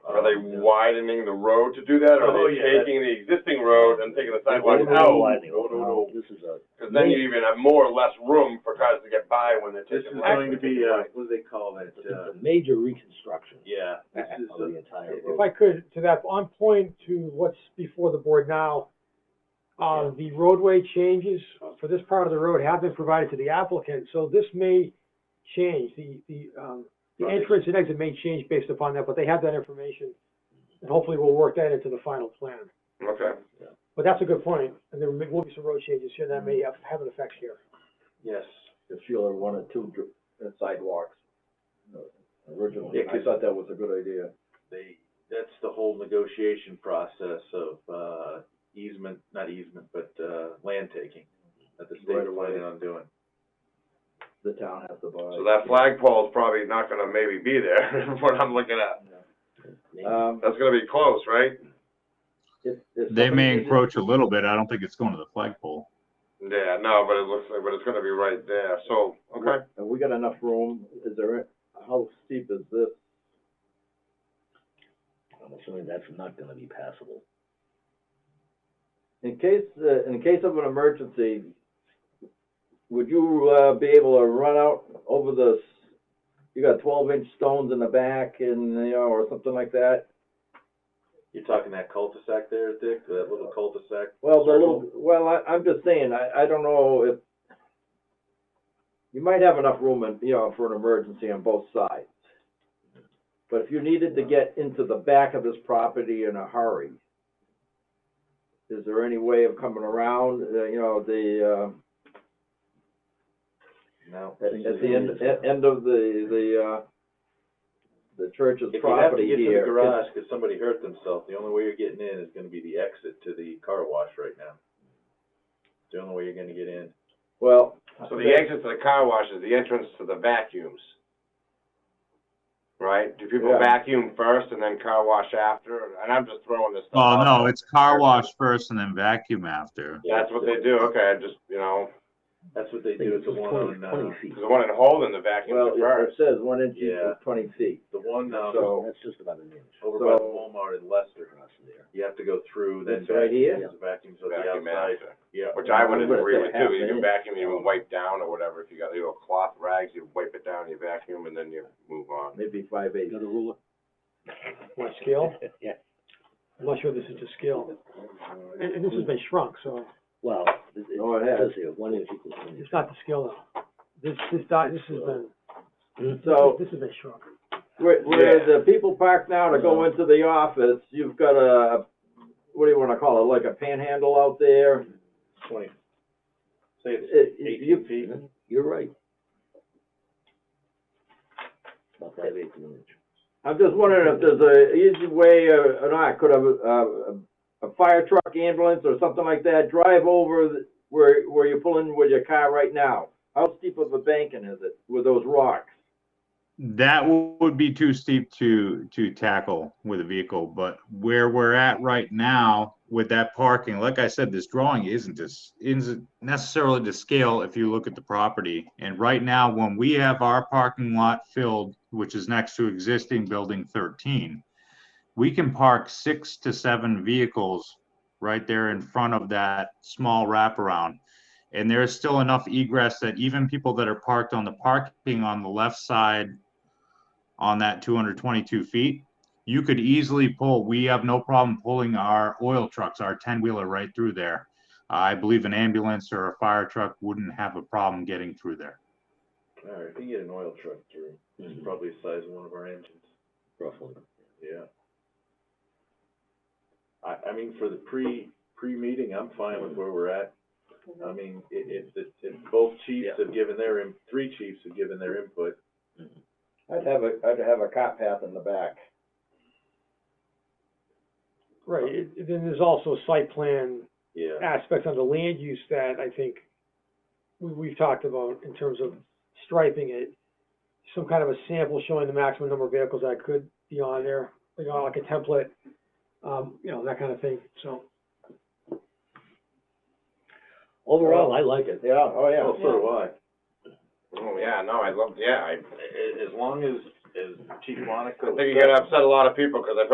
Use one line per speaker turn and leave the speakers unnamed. Are they widening the road to do that, or
Oh,
are they
yeah, that-
taking the existing road and taking the
Wide
sidewalk
Widening,
out?
widening.
No, no, no.
oh, This is a,
Cause then you even have more or less room for cars to get by when they're
This
taking.
is
left.
going to be, uh, what do they call it,
it's
uh,
a major reconstruction
yeah, this is,
of
uh,
the entire
if
road.
If I could, to that, on point to what's before the board now, um, the roadway changes for this part of the road have been provided to the applicant, so this may change, the, the, um, the
Right.
entrance and exit may change based upon that, but they have that information, and hopefully we'll work that into the final plan.
Okay.
But that's a good point, and there will be some road changes here that may have, have an effect here.
yes.
If Sheila wanted two dr- uh, sidewalks uh, originally,
Yeah,
I
'cause-
thought that was a good idea.
They, that's the whole negotiation process of, uh, easement, not easement, but, uh, land taking that the
Right
state's
away.
planning on doing.
The town has to buy.
So that flagpole is probably not gonna maybe be there, what I'm looking at.
Uh,
Um,
That's gonna be close, right?
if, if.
They may
somebody-
encroach a little bit. I don't think it's going to the flagpole.
Yeah, no, but it looks like, but it's gonna be right there, so, okay.
Have we got enough room? Is there, how steep is this?
I'm assuming that's not gonna be passable.
In case, uh, in case of an emergency, would you, uh, be able to run out over the, s- you got twelve inch stones in the back and, you know, or something like that?
You're talking that cul-de-sac there, Dick, that little cul-de-sac?
Well, the little,
circle?
well, I, I'm just saying, I, I don't know if, you might have enough room in, you know, for an emergency on both sides. But if you needed to get into the back of this property in a hurry, is there any way of coming around, uh, you know, the,
No.
uh, at, at the end, at end of the, the, uh, the church's
If you have to
property
get to the
here?
garage because somebody hurt themselves, the only way you're getting in is gonna be the exit to the car wash right now. It's the only way you're gonna get in.
Well.
So the exit to the car wash is the entrance to the vacuums. Right? Do people
Yeah.
vacuum first and then car wash after? And I'm just throwing this stuff
Oh,
out
no,
there.
it's car wash first and then vacuum after.
That's what they do, okay, I just, you know,
That's what they do, it's the one on, uh,
Twenty feet,
there's one in Holden, the vacuum
Well,
is
it
first.
says one inch
Yeah.
equals twenty feet,
the one, um,
so.
that's just about an inch
over by the
so-
Walmart in Leicester.
across there.
You have to go through, then
This right
vacuum,
here?
because the vacuums are the
Vacuum
outside,
after.
yeah.
Which I would
I'm gonna
agree
say
with
half
too, you
an
can
inch.
vacuum, you can wipe down or whatever, if you got little cloth rags, you wipe it down, you vacuum, and then you move on.
maybe five eight.
You got a ruler?
What scale?
Yeah,
I'm not sure this is to scale. And, and this has been shrunk, so
well, it, it
Oh, it has.
says here, one inch equals one inch.
it's not to scale though. This, this, di- this has been,
Oh.
So-
this has been shrunk.
Where, where
Yeah.
the people park now to go into the office, you've got a, what do you wanna call it, like a panhandle out there?
Twenty, say it's
It- you-
eighteen feet,
You're right. About five eighths of an inch.
I'm just wondering if there's a easy way or or not, could a, a, a fire truck, ambulance or something like that drive over the- where, where you pull in with your car right now? How steep of a banking is it with those rocks?
That w- would be too steep to, to tackle with a vehicle, but where we're at right now with that parking, like I said, this drawing isn't just, isn't necessarily to scale if you look at the property. And right now, when we have our parking lot filled, which is next to existing building thirteen, we can park six to seven vehicles right there in front of that small wraparound. And there is still enough egress that even people that are parked on the parking on the left side on that two hundred twenty-two feet, you could easily pull, we have no problem pulling our oil trucks, our ten-wheeler right through there. I believe an ambulance or a fire truck wouldn't have a problem getting through there.
alright, if you get an oil truck through, it's probably the size of one of our engines.
Mm-hmm. Roughly.
Yeah. I, I mean, for the pre, pre-meeting, I'm fine with where we're at. I mean, i- if, if, if both chiefs
Yeah.
have given their, in- three chiefs have given their input,
I'd have a, I'd have a cop path in the back.
Right, it- it- then there's also site plan
yeah.
aspects on the land use that I think we, we've talked about in terms of striping it. Some kind of a sample showing the maximum number of vehicles that could be on there, you know, like a template, um, you know, that kind of thing, so.
Overall, I like it.
Yeah, oh, yeah.
Well, so do I.
Oh, yeah, no, I love, yeah, I,
A- a- as long as, as Chief Monaco.
I think you're gonna upset a lot of people, cause I